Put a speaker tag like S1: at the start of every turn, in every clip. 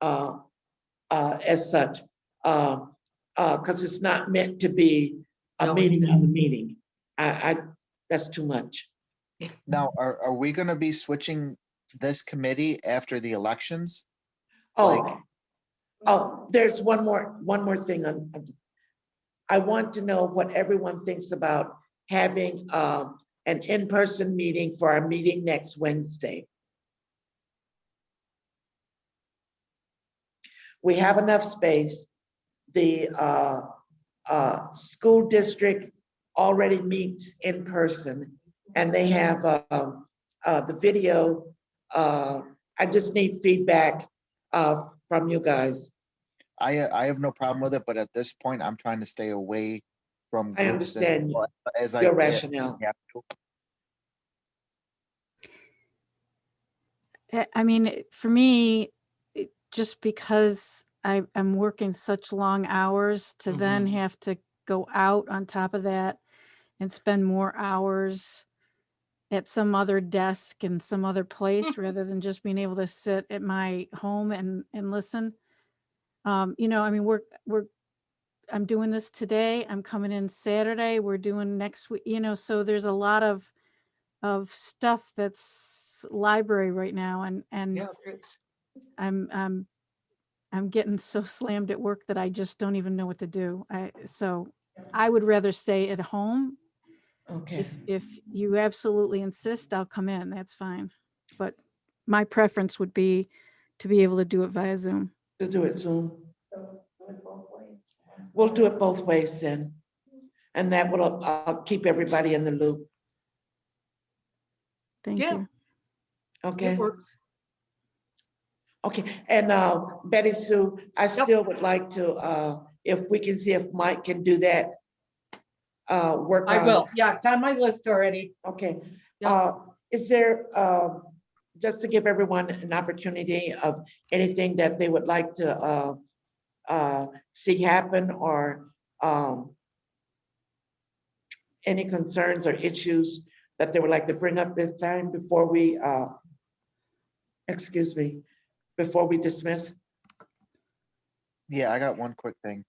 S1: uh, uh, as such. Uh, uh, cause it's not meant to be a
S2: No, it's
S1: meeting of the meeting. I, I, that's too much.
S3: Now,
S1: Mm-hmm.
S3: are, are we gonna be switching this committee after the elections?
S1: Oh,
S3: Like-
S1: oh, there's one more, one more thing on. on- I want to know what everyone thinks about having, uh, an in-person meeting for our meeting next Wednesday. We have enough space. The, uh, uh, school district already meets in person and they have, uh, um, uh, the video. Uh, I just need feedback, uh, from you guys.
S3: I, uh, I have no problem with it, but at this point, I'm trying to stay away from.
S1: I
S3: groups and
S1: understand
S3: people As I.
S1: Your
S3: yeah,
S1: rationale.
S3: yeah.
S4: I- eh, I mean, it- for me, it- just because I am working such long hours to then have to go out on top of that and spend more hours at some other desk in some other place rather than just being able to sit at my home and and listen. Um, you know, I mean, we're we're I'm doing this today. I'm coming in Saturday. We're doing next week. You know, so there's a lot of of stuff that's library right now and and
S2: Yeah, there is.
S4: I'm I'm I'm getting so slammed at work that I just don't even know what to do. I so I would rather stay at home.
S1: Okay,
S4: If if you absolutely insist, I'll come in. That's fine. But my preference would be to be able to do it via Zoom.
S1: to do it soon. We'll do it both ways then. And that will, uh, keep everybody in the loop,
S4: Thank
S2: Yeah.
S4: you.
S1: okay?
S2: It works.
S1: Okay, and, uh, Betty Sue, I
S2: Yep.
S1: still would like to, uh, if we can see if Mike can do that. Uh, work on.
S2: I will. Yeah, it's on my list already.
S1: Okay,
S2: Yep.
S1: uh, is there, uh, just to give everyone an opportunity of anything that they would like to, uh, uh, see happen or, um, any concerns or issues that they would like to bring up this time before we, uh, excuse me, before we dismiss?
S3: Yeah, I got one quick thing.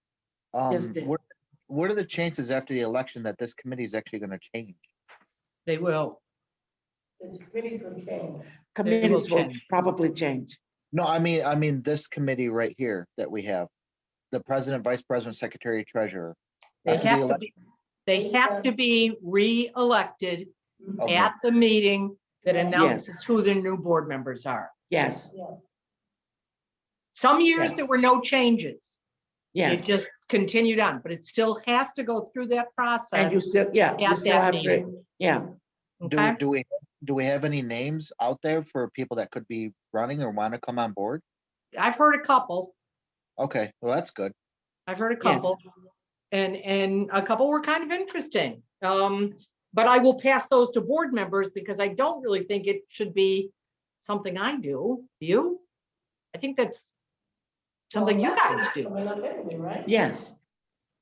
S3: Um,
S1: Yes, Dan.
S3: what, what are the chances after the election that this committee is actually gonna change?
S2: They will.
S1: Committees will
S2: change.
S1: probably change.
S3: No, I mean, I mean, this committee right here that we have, the president, vice president, secretary, treasurer.
S2: They
S3: Have to be
S2: have to
S3: elect-
S2: be, they have to be re-elected
S3: Okay.
S2: at the meeting that
S1: Yes.
S2: announces who the new board members are.
S1: Yes,
S2: Some years there
S1: Yes.
S2: were no changes. It
S1: yes.
S2: just continued on, but it still has to go through that
S1: And you
S2: process.
S1: still, yeah, you
S2: At
S1: still
S2: that
S1: have to,
S2: meeting.
S1: yeah.
S2: Okay?
S3: Do, do we, do we have any names out there for people that could be running or want to come on board?
S2: I've heard a couple.
S3: Okay, well, that's good.
S2: I've heard a
S1: Yes.
S2: couple. And, and a couple were kind of interesting. Um, but I will pass those to board members because I don't really think it should be something I do. You? I think that's something you guys do.
S1: Yes,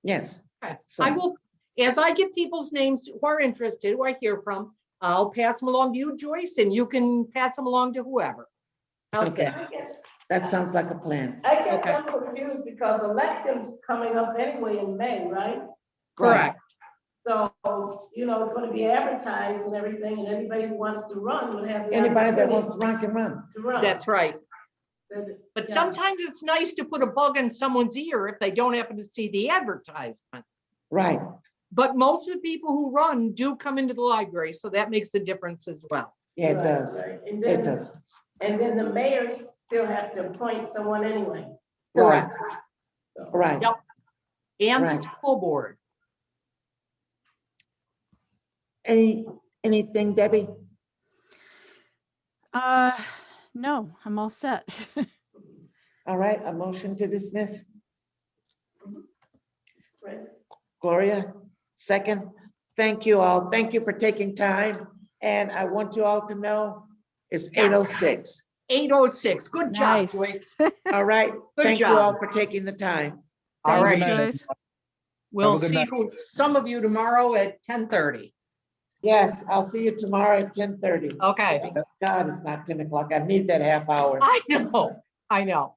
S1: yes.
S2: Okay. I
S1: So-
S2: will, as I get people's names who are interested, who I hear from, I'll pass them along to you, Joyce, and you can pass them along to whoever. How's
S1: Okay,
S2: that?
S5: I get-
S1: that sounds like a plan.
S5: I guess
S2: Okay.
S5: I'm confused because elections coming up anyway in May, right?
S2: Correct.
S5: So, you know, it's gonna be advertised and everything, and anybody who wants to run would have. the
S1: Anybody that wants
S5: opportunity
S1: to run can run.
S5: To run.
S2: That's right.
S5: Then-
S2: But
S5: Yeah.
S2: sometimes it's nice to put a bug in someone's ear if they don't happen to see the advertisement.
S1: Right,
S2: But most of the people who run do come into the library, so that makes a difference as well.
S1: yeah, it
S5: Right,
S1: does.
S5: right. And
S1: It
S5: then,
S1: does.
S5: and then the mayor still has to appoint someone anyway.
S1: Right,
S5: So-
S1: right.
S2: Yep. And the
S1: Right.
S2: school board.
S1: Any, anything, Debbie?
S4: Uh, no, I'm all set.
S1: All right, a motion to dismiss.
S5: Right.
S1: Gloria, second. Thank you all. Thank you for taking time. And I want you all to know it's eight oh six.
S2: Eight oh six. Good job,
S4: Nice.
S2: Joyce.
S1: All right,
S2: Good
S1: thank you
S2: job.
S1: all for taking the time.
S2: All
S4: Thank you,
S2: right,
S4: Joyce.
S2: we'll
S3: Have a good
S2: see
S3: night.
S2: who, some of you tomorrow at ten thirty.
S1: Yes, I'll see you tomorrow at ten thirty.
S2: Okay,
S1: God, it's not ten o'clock. I need that half hour.
S2: I know, I know.